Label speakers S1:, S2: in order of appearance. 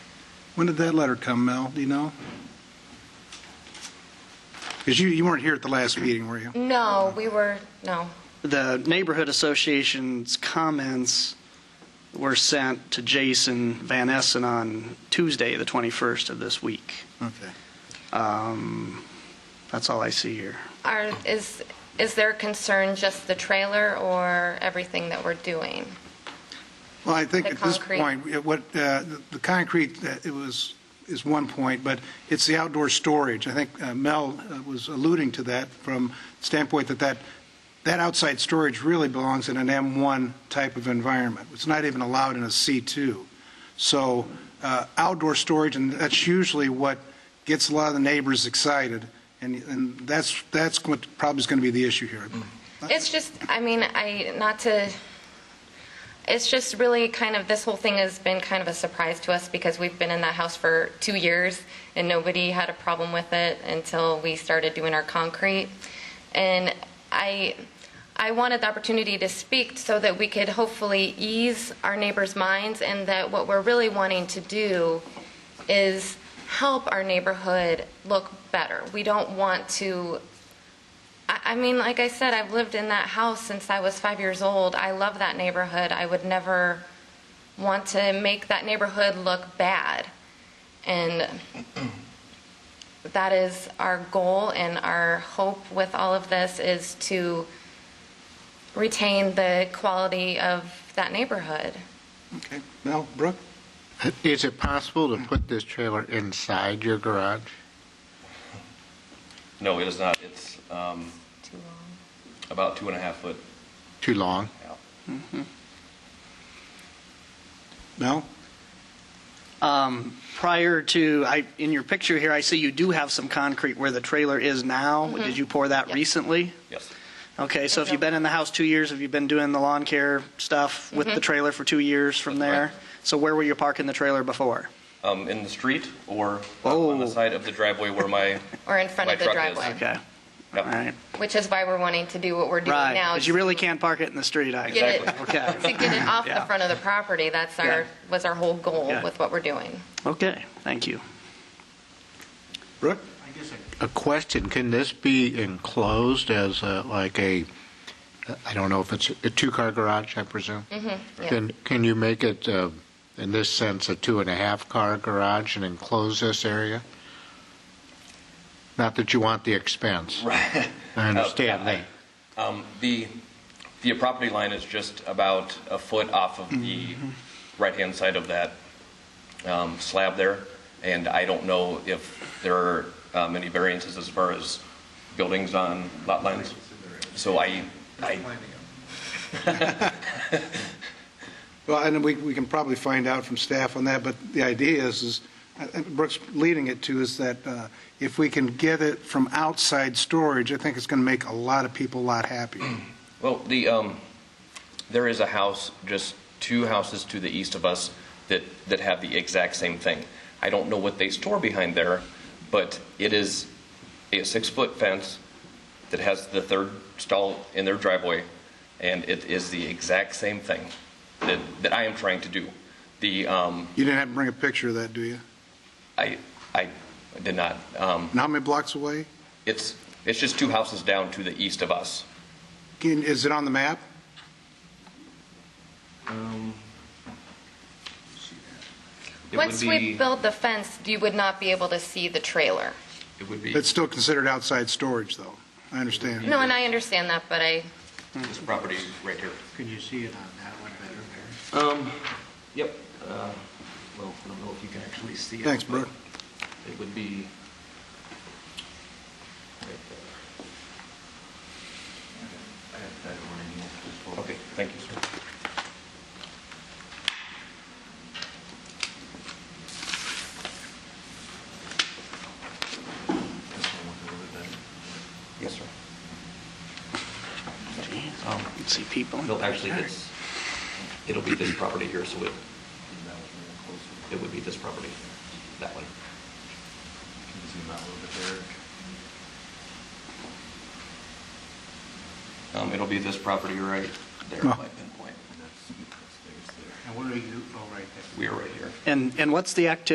S1: When did that letter come, Mel? Do you know? Because you, you weren't here at the last meeting, were
S2: Mm.
S1: you?
S2: No, we were, no.
S3: The neighborhood association's comments were sent to Jason Van Essen on Tuesday, the 21st of this week.
S1: Okay.
S3: Um, That's all I see here.
S2: Are, is, is their concern just the trailer or everything that we're doing?
S1: Well, I think
S2: The
S1: at this
S2: concrete.
S1: point, it- what, uh, the the concrete, uh, it was, is one point, but it's the outdoor storage. I think uh, Mel uh, was alluding to that from the standpoint that that, that outside storage really belongs in an M1 type of environment. It's not even allowed in a C2. So uh, outdoor storage, and that's usually what gets a lot of the neighbors excited, and, and that's, that's what probably is going to be the issue here.
S2: It's just, I mean, I, not to, it's just really kind of, this whole thing has been kind of a surprise to us because we've been in that house for two years and nobody had a problem with it until we started doing our concrete. And I, I wanted the opportunity to speak so that we could hopefully ease our neighbors' minds and that what we're really wanting to do is help our neighborhood look better. We don't want to I I mean, like I said, I've lived in that house since I was five years old. I love that neighborhood. I would never want to make that neighborhood look bad. And that is our goal and our hope with all of this is to retain the quality of that neighborhood.
S1: Okay, Mel, Brooke?
S4: Is it possible to put this trailer inside your garage?
S5: No, it is not. It's um,
S2: Too long.
S5: about two and a half foot
S4: Too long?
S5: out.
S1: Mel?
S3: Um, Prior to, I, in your picture here, I see you do have some concrete where the trailer is now. Did you pour that
S2: Yep.
S3: recently?
S5: Yes.
S3: Okay, so if
S2: Okay.
S3: you've been in the house two years, have you been doing the lawn care stuff with the trailer for two years from
S5: That's
S3: there?
S5: correct.
S3: So where were you parking the trailer before?
S5: Um, in the street or on the
S3: Oh.
S5: side of the driveway where my,
S2: Or in front
S5: My
S2: of the
S5: truck is.
S2: driveway,
S3: Okay, all
S5: yep,
S3: right.
S2: which is why we're wanting to do what we're doing
S3: Right,
S2: now.
S3: because you really can't park it in the street, I
S2: Get it-
S3: Okay,
S2: To get it off the
S3: Yeah.
S2: front of the property, that's
S3: Yeah.
S2: our, was our whole goal
S3: Yeah.
S2: with what we're doing.
S3: okay, thank you.
S1: Brooke?
S4: A question, can this be enclosed as uh, like a, I don't know if it's a two-car garage, I presume?
S2: yeah.
S4: Can, can you make it, uh, in this sense, a two and a half car garage and enclose this area? Not that you want the expense.
S5: right.
S4: I understand that.
S5: Um, The, the property line is just about a foot off of the right-hand side of that um, slab there, and I don't know if there are um, any variances as far as buildings on lot lines. So I, I,
S1: Well, and we, we can probably find out from staff on that, but the idea is, is, I think Brooks leading it to is that uh, if we can get it from outside storage, I think it's going to make a lot of people a lot happier.
S5: well, the, um, there is a house, just two houses to the east of us that, that have the exact same thing. I don't know what they store behind there, but it is a six-foot fence that has the third stall in their driveway, and it is the exact same thing that, that I am trying to do. The, um,
S1: You didn't have to bring a picture of that, do you?
S5: I, I did not, um,
S1: And how many blocks away?
S5: it's, it's just two houses down to the east of us.
S1: Can- Is it on the map?
S5: It would
S2: Once
S5: be-
S2: we build the fence, you would not be able to see the trailer.
S5: It would be,
S1: It's still considered outside storage, though. I understand.
S2: No, and I understand that, but I,
S5: this property right here.
S4: Can you see it on that one better there?
S5: Um, yep. uh, Well, I don't know if you can actually see it.
S1: Thanks, Brooke.
S5: but It would be. right there. Okay, thank you, sir. Yes, sir.
S3: You can See people. in
S5: No,
S3: there.
S5: actually, it's, it'll be this property here, so it, it would be this property, that one.
S6: Can you zoom out a little bit there?
S5: Um, it'll be this property right there,
S1: No.
S5: my pinpoint.
S6: That's, that's, there's there.
S4: And where are you, oh, right there.
S5: We are right here.
S3: And, and what's the activity